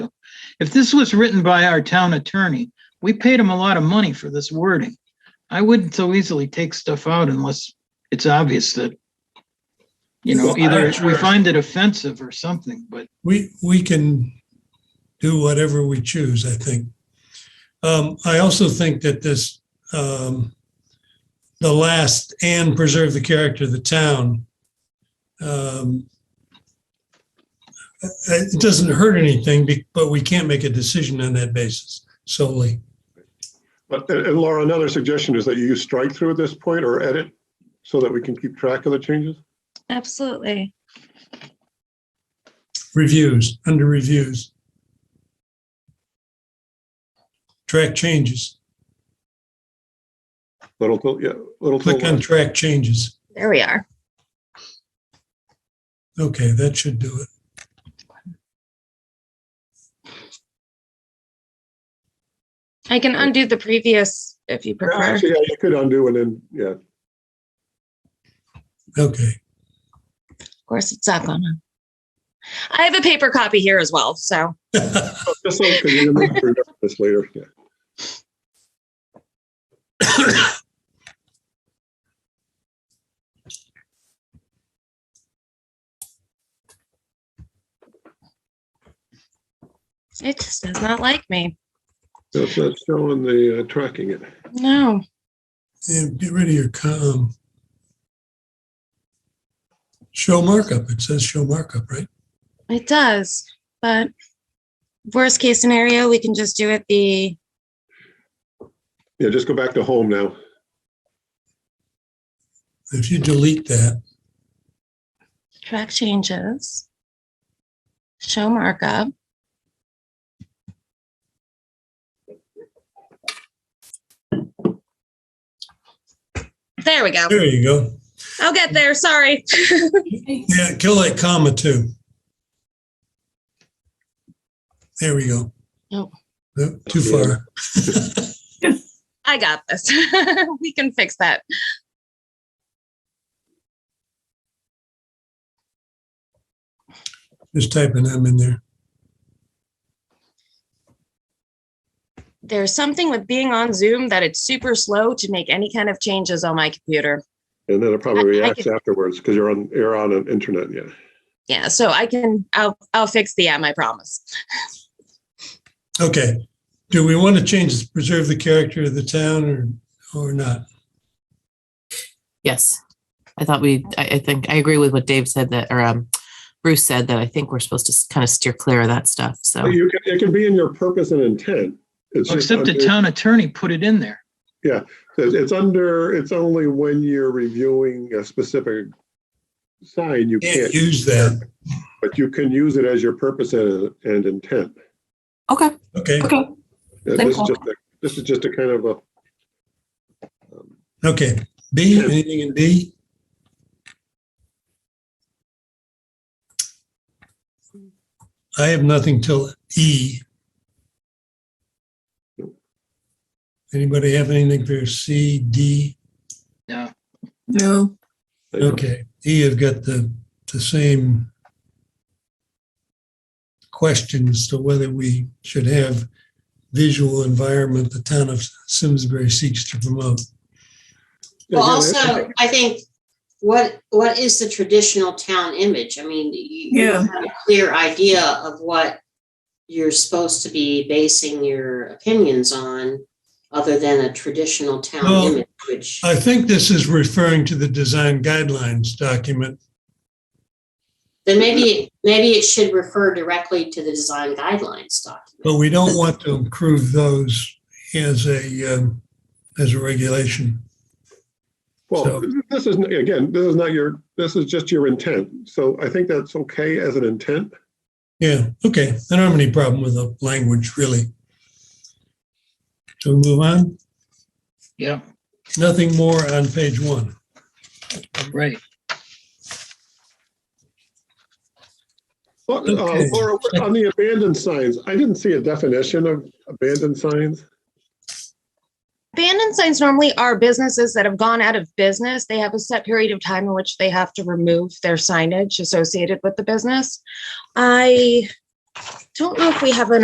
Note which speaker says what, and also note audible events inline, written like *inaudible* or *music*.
Speaker 1: If this was written by our town attorney, we paid him a lot of money for this wording. I wouldn't so easily take stuff out unless it's obvious that, you know,
Speaker 2: Well, I-
Speaker 1: either we find it offensive or something, but
Speaker 2: We, we can do whatever we choose, I think. Um, I also think that this, um, the last and preserve the character of the town. um, uh, It doesn't hurt anything, be- but we can't make a decision on that basis solely.
Speaker 3: But uh, and and Laura, another suggestion is that you use strike through at this point or edit so that we can keep track of the changes.
Speaker 4: Absolutely.
Speaker 2: Reviews, under reviews. Track changes,
Speaker 3: Little, till- yeah, little. till
Speaker 2: click on
Speaker 3: left.
Speaker 2: track changes.
Speaker 4: There we are.
Speaker 2: Okay, that should do it.
Speaker 4: I can undo the previous if you prefer.
Speaker 3: Actually, yeah, you could undo and then, yeah,
Speaker 2: Okay.
Speaker 4: Of course, it's not gonna. I have a paper copy here as well, so
Speaker 3: just so, because you're gonna remember this later, yeah.
Speaker 4: it just does not like me.
Speaker 3: That's not showing the uh, tracking it.
Speaker 4: No.
Speaker 2: And get rid of your um, com. Show markup. It says show markup, right?
Speaker 4: It does, but worst case scenario, we can just do it the,
Speaker 3: Yeah, just go back to home now.
Speaker 2: If you delete that,
Speaker 4: track changes, show markup. There we go.
Speaker 2: there you go.
Speaker 4: I'll get there. Sorry.
Speaker 2: Yeah, kill that comma too. There we go.
Speaker 4: Nope.
Speaker 2: Nope, Too far.
Speaker 4: I got this. *laughs* we can fix that.
Speaker 2: Just type an M in there.
Speaker 4: There's something with being on Zoom that it's super slow to make any kind of changes on my computer.
Speaker 3: And then it probably
Speaker 4: I- I
Speaker 3: reacts
Speaker 4: can-
Speaker 3: afterwards because you're on, you're on an internet, yeah.
Speaker 4: Yeah, so I can I'll I'll fix the M, I promise.
Speaker 2: Okay. Do we want to change, this, preserve the character of the town or, or not?
Speaker 5: Yes. I thought we, I, I think, I agree with what Dave said that, or um, Bruce said that I think we're supposed to kind of steer clear of that stuff. So,
Speaker 3: But Oh, you can, it can be in your purpose and intent. It's just
Speaker 1: except the
Speaker 3: under-
Speaker 1: town attorney put it in there.
Speaker 3: It's it's under, it's only when you're reviewing a specific sign, you
Speaker 2: Can't
Speaker 3: can't,
Speaker 2: use that.
Speaker 3: but you can use it as your purpose and, and intent.
Speaker 5: okay,
Speaker 2: Okay,
Speaker 5: okay.
Speaker 3: Yeah, This is
Speaker 5: Simple.
Speaker 3: just a, this is just a kind of a. um,
Speaker 2: okay. B, anything in B? I have nothing till E. Anybody have anything for C, D?
Speaker 1: No,
Speaker 6: No,
Speaker 3: like,
Speaker 2: Okay, E have got the, the same questions to whether we should have visual environment the town of Simsbury seeks to promote.
Speaker 3: yeah,
Speaker 7: Well,
Speaker 3: yeah,
Speaker 7: also, I think, what, what is the traditional town image? I mean, you you
Speaker 6: Yeah.
Speaker 7: have a clear idea of what you're supposed to be basing your opinions on, other than a traditional
Speaker 2: Well,
Speaker 7: town image, which,
Speaker 2: I think this is referring to the design guidelines document.
Speaker 7: then maybe, maybe it should refer directly to the design guidelines document.
Speaker 2: But we don't want to improve those as a, um, as a regulation.
Speaker 3: Well,
Speaker 2: so-
Speaker 3: this is, again, this is not your, this is just your intent. So I think that's okay as an intent.
Speaker 2: Yeah, okay. I don't have any problem with the language, really. So move on.
Speaker 1: yeah,
Speaker 2: Nothing more on page one.
Speaker 1: right.
Speaker 3: But, uh,
Speaker 2: Okay.
Speaker 3: Laura, on the abandoned signs, I didn't see a definition of abandoned signs.
Speaker 4: Abandoned signs normally are businesses that have gone out of business. They have a set period of time in which they have to remove their signage associated with the business. I don't know if we have an